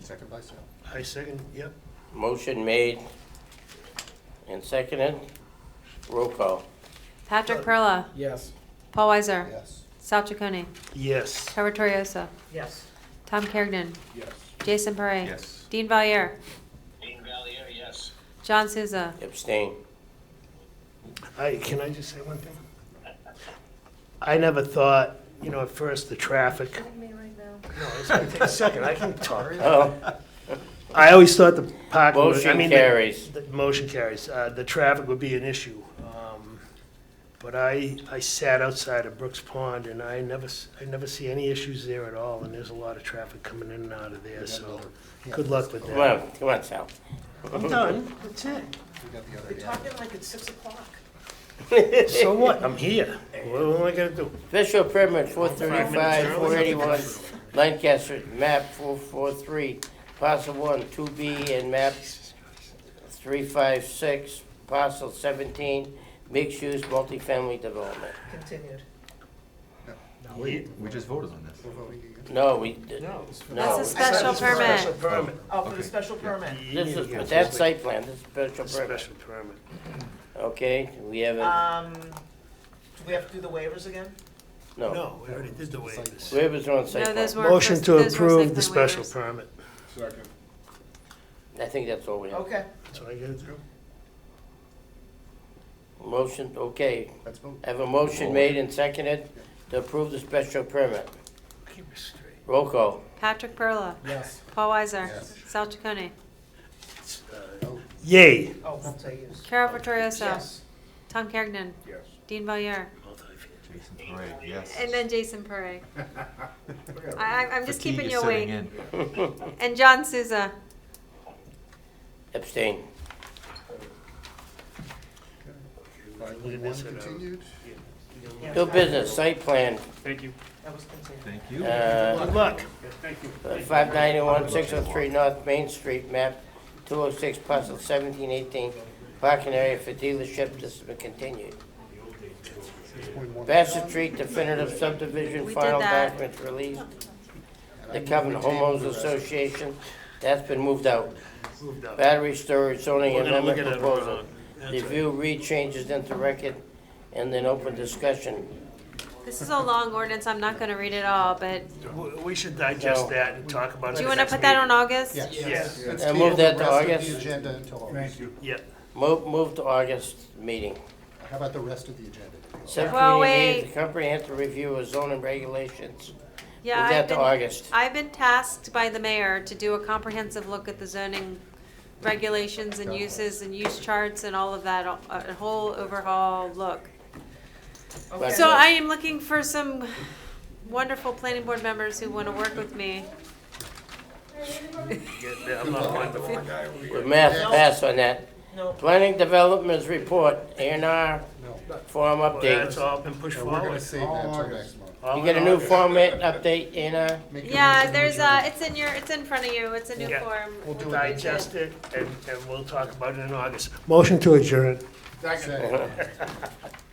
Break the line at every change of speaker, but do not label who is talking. second by Sal.
I second, yep.
Motion made and seconded. Roll call.
Patrick Perla,
Yes.
Paul Weiser,
Yes.
Sal Chaconi,
Yes.
Trevor Torriosa,
Yes.
Tom Kergnen,
Yes.
Jason Parre.
Yes.
Dean Valier,
Dean Valier, yes.
John Souza,
Abstain.
I, can I just say one thing? I never thought, you know, at first, the traffic. No, it's gonna take a second, I can talk.
Oh,
I always thought the parking. was- I
Motion
mean, the-
carries.
the Motion carries. Uh, The traffic would be an issue. Um, But I, I sat outside of Brooks Pond, and I never, s- I never see any issues there at all, and there's a lot of traffic coming in and out of there, so good luck with
come
that.
on, come on, Sal.
I'm done, that's it.
We got the other hand.
We're talking like it's six o'clock.
So what? I'm here. What am I gonna do?
Official permit four thirty-five, four eighty-one, Lancaster, map four four three, parcel one, two B, and map three five six, parcel seventeen, mixed-use multifamily development.
Continued.
We-
We just voted on this.
We're voting again.
No, we,
No.
that's
no,
a special permit.
Special permit.
Oh, for
Okay.
the special permit.
this is, but that's site plan, this is
A
special permit.
Special permit.
Okay, we have a,
Um, do we have to do the waivers again?
no.
No, we already did the waivers.
Whoever's on site
No, those
plan.
were.
Motion
first-
to
those were
approve the
site plan
special
waivers.
permit.
Second.
I think that's all we have.
Okay.
That's what I gotta do.
Motion, okay.
Let's vote.
I have a motion made and seconded to approve the special permit.
Keep it straight.
Roll call.
Patrick Perla,
Yes.
Paul Weiser,
Yes.
Sal Chaconi,
It's, uh, Yay.
Oh, multi-use.
Carol Vittorioso,
Yes.
Tom Kergnen,
Yes.
Dean Valier,
Jason Parra, yes.
and then Jason Parre. I, I'm just
Fatigue
keeping
is
you
setting
awake.
in.
And John Souza.
Abstain.
Five one
Look at this, I know.
continued.
Yeah,
New business, site plan,
That was continued.
Thank you.
uh,
Good luck.
five ninety-one, six oh three North Main Street, map two oh six, parcel seventeen eighteen, parking area for dealership, this has been continued. Bassett Street definitive subdivision,
We did
final
that.
documents released,
And I
the
move
Covenant
we table
Homeowners
the rest.
Association, that's been moved out.
Moved up.
Battery storage zoning
uh, We're gonna look
amendment
at it
proposal.
wrong. That's right.
Review, read changes into record, and then open discussion.
This is a long ordinance, I'm not gonna read it all, but,
W- We should digest
So-
that and talk about it.
do you wanna put that on August?
Yes.
Yes.
Let's
And
table
move that uh,
the
to
rest of
August.
The agenda until August.
Yeah.
Move, move to August meeting.
How about the rest of the agenda?
Well,
Subcommittee
wait.
needs a comprehensive review of zoning regulations. Move
Yeah, I've
that to
been,
August.
I've been tasked by the mayor to do a comprehensive look at the zoning regulations and uses and use charts and all of that, a a whole overhaul look.
Okay.
So I am looking for some wonderful planning board members who wanna work with me.
Yeah, I'm not wonderful.
With math, pass on that.
No,
Planning Development's report, A and R,
No.
form
That's
update.
all been pushed
No, we're gonna
forward.
save that till next month.
All
You
in
get a new
August.
format update, A and R?
Make your
Yeah,
motion,
there's
adjourn.
a, it's in your, it's in front of you, it's a new
Yeah.
form.
We'll do it.
Digest it, and, and we'll talk about it in August. Motion to adjourn.
Second.